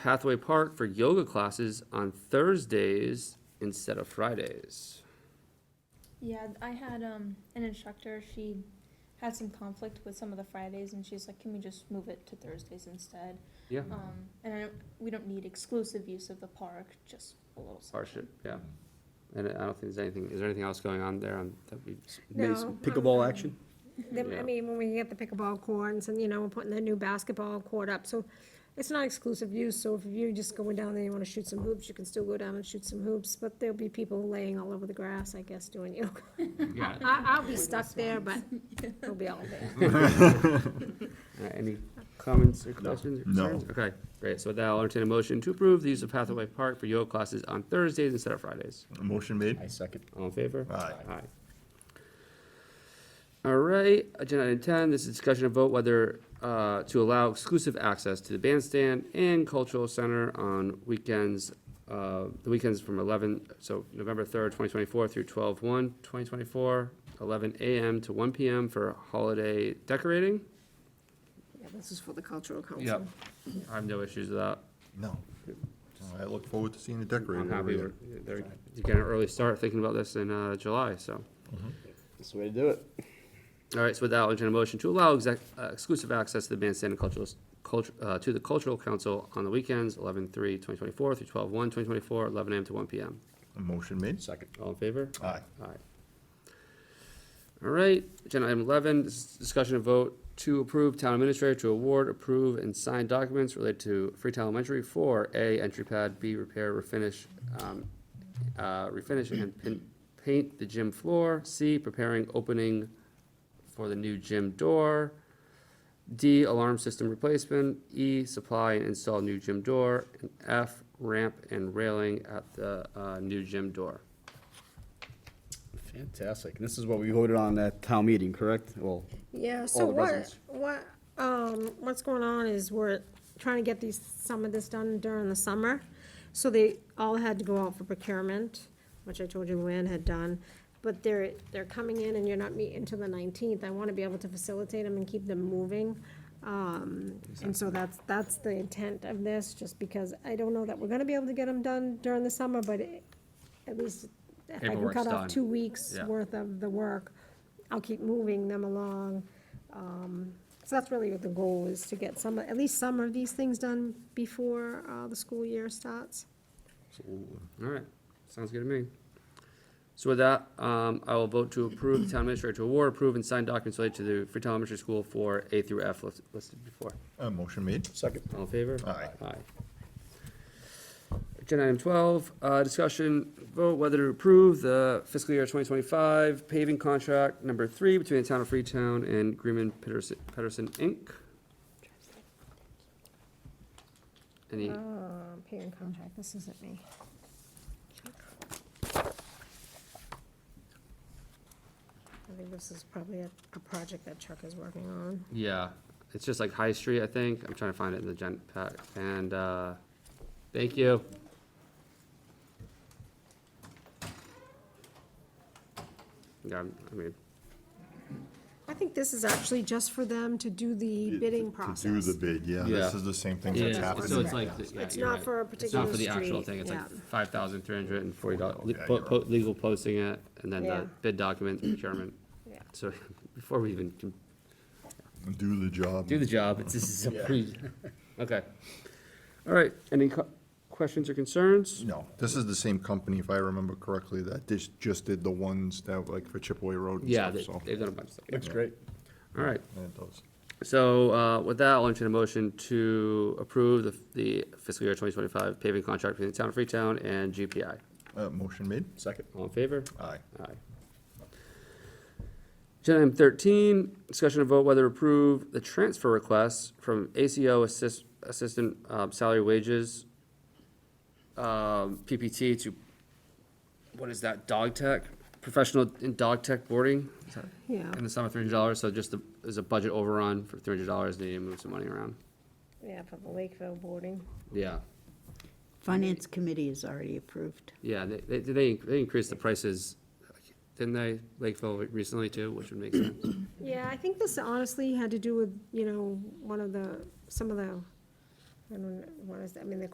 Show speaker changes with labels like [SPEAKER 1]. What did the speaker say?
[SPEAKER 1] Hathaway Park for yoga classes on Thursdays instead of Fridays.
[SPEAKER 2] Yeah, I had um an instructor, she had some conflict with some of the Fridays and she's like, can we just move it to Thursdays instead?
[SPEAKER 1] Yeah,
[SPEAKER 2] Um, and I don't, we don't need exclusive use of the park, just a little
[SPEAKER 1] partial,
[SPEAKER 2] something.
[SPEAKER 1] yeah. And I don't think there's anything, is there anything else going on there on, that we,
[SPEAKER 3] No,
[SPEAKER 4] Maybe some pickleball
[SPEAKER 3] um,
[SPEAKER 4] action?
[SPEAKER 3] Then,
[SPEAKER 1] Yeah.
[SPEAKER 3] I mean, when we get the pickleball courts and, you know, we're putting the new basketball court up, so it's not exclusive use, so if you're just going down there, you wanna shoot some hoops, you can still go down and shoot some hoops, but there'll be people laying all over the grass, I guess, doing yoga.
[SPEAKER 1] yeah,
[SPEAKER 3] I, I'll be stuck there, but we'll be all there.
[SPEAKER 1] Uh, Any comments or questions or
[SPEAKER 4] No.
[SPEAKER 1] concerns? Okay, great. So with that, I'll entertain a motion to approve the use of Hathaway Park for yoga classes on Thursdays instead of Fridays.
[SPEAKER 4] Motion made.
[SPEAKER 5] I second.
[SPEAKER 1] All in favor?
[SPEAKER 4] Aye.
[SPEAKER 1] Aye. All right, agenda item ten, this is discussion of vote whether, uh, to allow exclusive access to the bandstand and cultural center on weekends, uh, the weekends from eleven, so November third, twenty twenty-four through 12 one, 2024, 11 AM to one PM for holiday decorating.
[SPEAKER 6] Yeah, this is for the cultural council.
[SPEAKER 1] Yep. I have no issues with that.
[SPEAKER 4] No. I look forward to seeing the
[SPEAKER 1] I'm
[SPEAKER 4] decorator.
[SPEAKER 1] happy
[SPEAKER 4] every
[SPEAKER 1] we're,
[SPEAKER 4] year.
[SPEAKER 1] they're, you can early start thinking about this in, uh, July, so.
[SPEAKER 5] That's the way to do it.
[SPEAKER 1] All right, so with that, I'll entertain a motion to allow exec, uh, exclusive access to the bandstand and cultural, culture, uh, to the cultural council on the weekends, 11-3-2024 through 12-1-2024, 11 AM to one PM.
[SPEAKER 4] Motion made.
[SPEAKER 5] Second.
[SPEAKER 1] All in favor?
[SPEAKER 4] Aye.
[SPEAKER 1] Aye. All right, agenda item eleven, this is discussion and vote to approve town administrator to award, approve, and sign documents related to Freetown Elementary for A, entry pad, B, repair, refinish, um, uh, refinish and pin, paint the gym floor, C, preparing opening for the new gym door, D, alarm system replacement, E, supply and install new gym door, and F, ramp and railing at the, uh, new gym door.
[SPEAKER 5] Fantastic. This is what we voted on at town meeting, correct? Well,
[SPEAKER 3] Yeah, so
[SPEAKER 5] the
[SPEAKER 3] what,
[SPEAKER 5] residents.
[SPEAKER 3] what, um, what's going on is we're trying to get these, some of this done during the summer. So they all had to go out for procurement, which I told you Luann had done. But they're, they're coming in and you're not meeting till the nineteenth. I wanna be able to facilitate them and keep them moving. Um, and so that's, that's the intent of this, just because I don't know that we're gonna be able to get them done during the summer, but it- at least if I can
[SPEAKER 1] Paperwork's
[SPEAKER 3] cut
[SPEAKER 1] done.
[SPEAKER 3] off two weeks'
[SPEAKER 1] Yeah.
[SPEAKER 3] worth of the work, I'll keep moving them along. Um, So that's really what the goal is, to get some, at least some of these things done before uh, the school year starts.
[SPEAKER 1] All right, sounds good to me. So with that, um, I will vote to approve the town administrator to award, approve, and sign documents related to the Freetown Elementary School for A through F lis- listed before.
[SPEAKER 4] Uh, motion made.
[SPEAKER 5] second.
[SPEAKER 1] All in favor?
[SPEAKER 4] Aye.
[SPEAKER 1] Aye. Agenda item twelve, uh, discussion, vote whether to approve the fiscal year twenty twenty-five paving contract number three between the town of Freetown and Greenman Peterson, Peterson, Inc. Any,
[SPEAKER 3] Uh, Pay and contract, this isn't me. I think this is probably a, a project that Chuck is working on.
[SPEAKER 1] Yeah, it's just like High Street, I think. I'm trying to find it in the gen pack. And, uh, thank you. Yeah, I'm- I mean,
[SPEAKER 3] I think this is actually just for them to do the bidding process.
[SPEAKER 4] To do the bid, yeah. This
[SPEAKER 1] Yeah.
[SPEAKER 4] is the same thing that's
[SPEAKER 1] yeah,
[SPEAKER 4] happening.
[SPEAKER 1] so it's like, yeah,
[SPEAKER 3] It's
[SPEAKER 1] you're
[SPEAKER 3] not
[SPEAKER 1] right.
[SPEAKER 3] for a
[SPEAKER 1] It's not for the
[SPEAKER 3] particular
[SPEAKER 1] actual
[SPEAKER 3] street,
[SPEAKER 1] thing. It's like
[SPEAKER 3] yeah.
[SPEAKER 1] five thousand three hundred and forty dollars,
[SPEAKER 4] Okay, you're right.
[SPEAKER 1] legal posting it and then
[SPEAKER 3] Yeah.
[SPEAKER 1] the bid document procurement.
[SPEAKER 3] Yeah.
[SPEAKER 1] So before we even can
[SPEAKER 4] Do the job.
[SPEAKER 1] do the job, it's, this is a pre, okay. All right, any co- questions or concerns?
[SPEAKER 4] No, this is the same company, if I remember correctly, that just, just did the ones that like for Chipaway Road and
[SPEAKER 1] Yeah,
[SPEAKER 4] stuff,
[SPEAKER 1] they-
[SPEAKER 4] so.
[SPEAKER 1] they've done a bunch of stuff.
[SPEAKER 5] Looks great.
[SPEAKER 1] All right,
[SPEAKER 4] Yeah, it does.
[SPEAKER 1] So, uh, with that, I'll entertain a motion to approve the, the fiscal year twenty twenty-five paving contract between the town of Freetown and GPI.
[SPEAKER 4] Uh, motion made.
[SPEAKER 5] Second.
[SPEAKER 1] All in favor?
[SPEAKER 4] Aye.
[SPEAKER 1] Aye. Agenda item thirteen, discussion of vote whether to approve the transfer requests from ACO assist, assistant, um, salary wages, um, PPT to, what is that, dog tech? Professional in dog tech boarding? Is that-
[SPEAKER 3] Yeah.
[SPEAKER 1] In the sum of three hundred dollars, so just the, there's a budget overrun for three hundred dollars, they need to move some money around.
[SPEAKER 3] Yeah, for the Lakeville boarding.
[SPEAKER 1] Yeah,
[SPEAKER 6] Finance committee is already approved.
[SPEAKER 1] yeah, they, they, they, they increased the prices, didn't they, Lakeville recently too, which would make sense.
[SPEAKER 3] Yeah, I think this honestly had to do with, you know, one of the, some of the, I don't know, what is that, I mean, the